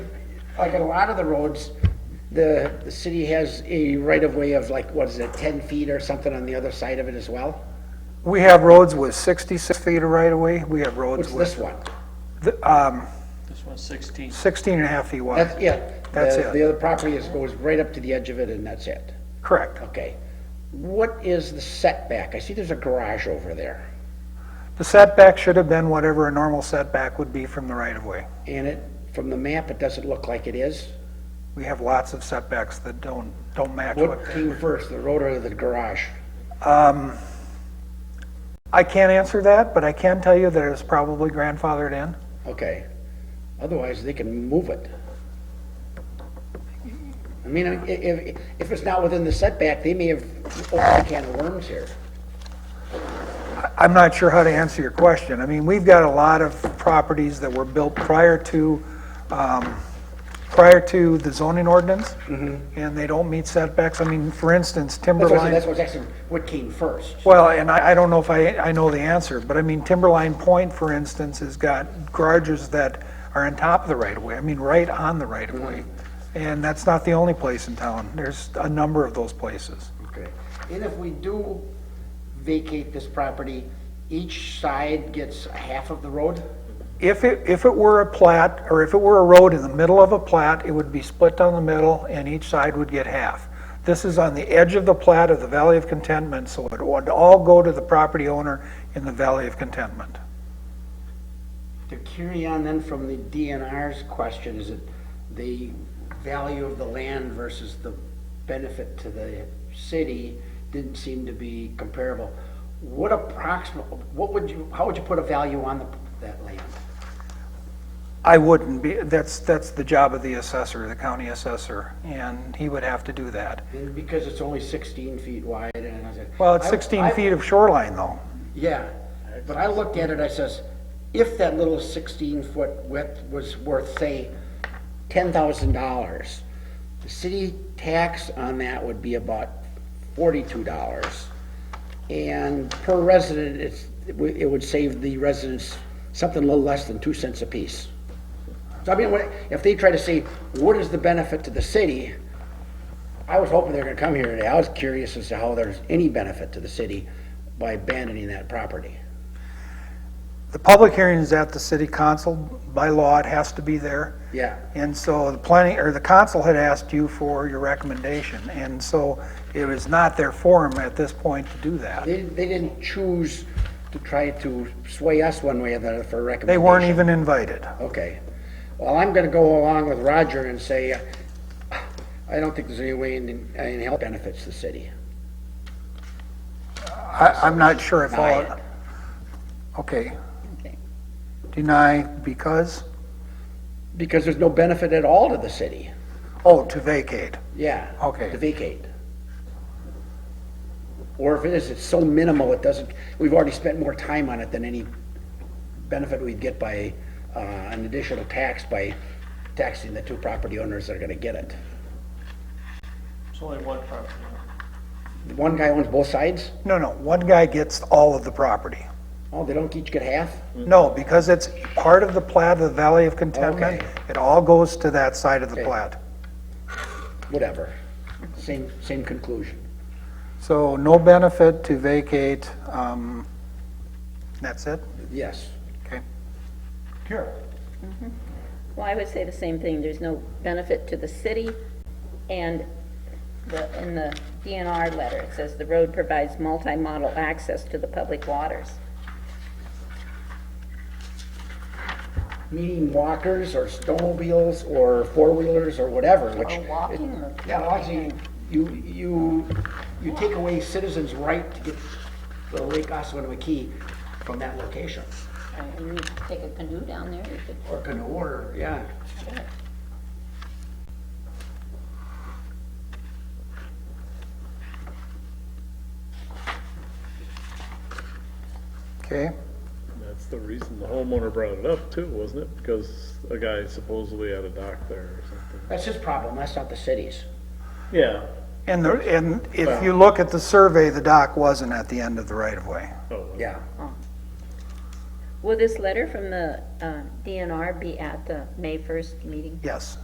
like a lot of the roads, the, the city has a right-of-way of like, what is it, ten feet or something on the other side of it as well? We have roads with 66 feet of right-of-way, we have What's roads with this one? th- um, This one's 16. 16 and a half feet wide. That's, yeah. That's the- it. The other property is, goes right up to the edge of it and that's it. Correct. Okay. What is the setback? I see there's a garage over there The setback should have been whatever a normal setback would be from the right-of-way. and it, from the map, it doesn't look like it is. We have lots of setbacks that don't, don't match what What came first, the road or the garage? I can't answer that, but I can tell you that it's probably grandfathered in. Okay. Otherwise, they can move it. I mean, i- if, if it's not within the setback, they may have opened a can of worms here. I- I'm not sure how to answer your question. I mean, we've got a lot of properties that were built prior to, um, prior to the zoning ordinance, and they don't meet setbacks. I mean, for instance, Mm-hmm. That's what I said, Timberline. that's what's actually, what came first. Well, and I, I don't know if I, I know the answer, but I mean, Timberline Point, for instance, has got garages that are on top of the right-of-way, I mean, right on the right-of-way. And that's not the only place in town, there's a number of those places. Okay. And if we do vacate this property, each side gets a half of the road? If it, if it were a plat, or if it were a road in the middle of a plat, it would be split down the middle, and each side would get half. This is on the edge of the plat of the Valley of Contentment, so it would all go to the property owner in the Valley of Contentment. To carry on then from the DNR's question, is it the value of the land versus the benefit to the city didn't seem to be comparable. What approximate, what would you, how would you put a value on the, that land? I wouldn't be, that's, that's the job of the assessor, the county assessor, and he would have to do that. And because it's only sixteen feet wide and I said. Well, it's I- 16 I- feet of shoreline, though. Yeah, but I looked at it, I says, if that little sixteen foot width was worth, say, ten thousand dollars, the city tax on that would be about forty-two dollars. And per resident, it's, it would- it would save the residents something a little less than two cents apiece. So I mean, when- if they try to say, what is the benefit to the city? I was hoping they're gonna come here today. I was curious as to how there's any benefit to the city by abandoning that property. The public hearing is at the city council, by law, it has to be there. Yeah. And so the planning, or the council had asked you for your recommendation, and so it was not their forum at this point to do that. They, they didn't choose to try to sway us one way or the other for a recommendation. They weren't even invited. Okay. Well, I'm gonna go along with Roger and say, I don't think there's any way in, in health benefits the city. I, I'm not sure if Deny all. it. Okay. Deny because, Because there's no benefit at all to the city. oh, to vacate. Yeah. Okay. To vacate. Or if it is, it's so minimal, it doesn't, we've already spent more time on it than any benefit we'd get by, uh, an additional tax by taxing the two property owners that are gonna get it. It's only one property. owner. One guy owns both sides? No, no, one guy gets all of the property. Oh, they don't each get half? No, because it's part of the plat of the Valley of Contentment. It all goes to that side of the Okay. plat. Whatever. Same, same conclusion. So no benefit to vacate, um, that's it? Yes. Okay. Sure. Well, I would say the same thing, there's no benefit to the city, and the, in the DNR letter, it says the road provides multimodal access to the public waters. Meaning walkers or snowmobiles or four-wheelers or whatever, which. Or walking or- Yeah, actually, you, you, you take away citizens' right to get the Lake Ossawinamakee from that location. And you could take a canoe down there, you could, Or can order, yeah. Okay, That's the reason the homeowner brought it up too, wasn't it? Because a guy supposedly had a dock there or something. That's his problem, that's not the city's. Yeah. and the, and if you look at the survey, the dock wasn't at the end of the right-of-way. Oh, Yeah. will this letter from the, uh, DNR be at the May first meeting? Yes.